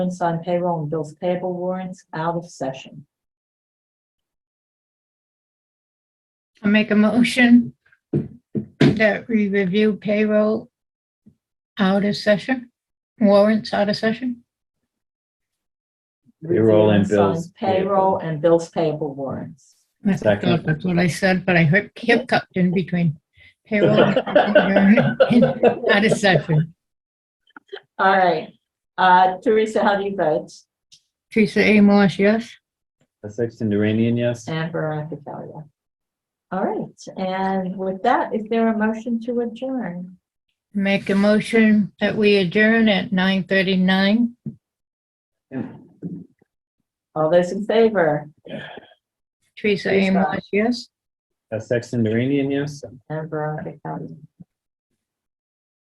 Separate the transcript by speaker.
Speaker 1: on payroll and bills payable warrants out of session.
Speaker 2: I'll make a motion that we review payroll out of session, warrants out of session.
Speaker 3: Payroll and
Speaker 1: Review on
Speaker 3: bills
Speaker 1: Payroll and bills payable warrants.
Speaker 2: I
Speaker 3: Second.
Speaker 2: thought that's what I said, but I heard hiccuped in between payroll and out of session.
Speaker 1: All right. Uh, Teresa, how do you vote?
Speaker 2: Teresa A. Marsh, yes?
Speaker 3: Sexton Duranian, yes.
Speaker 1: And Veronica Kelly. yeah. All right, and with that, is there a motion to adjourn?
Speaker 2: Make a motion that we adjourn at 9:39.
Speaker 1: All those in favor?
Speaker 2: Teresa A.
Speaker 1: Teresa.
Speaker 2: Marsh, yes?
Speaker 3: Sexton Duranian, yes.
Speaker 1: And Veronica Kelly.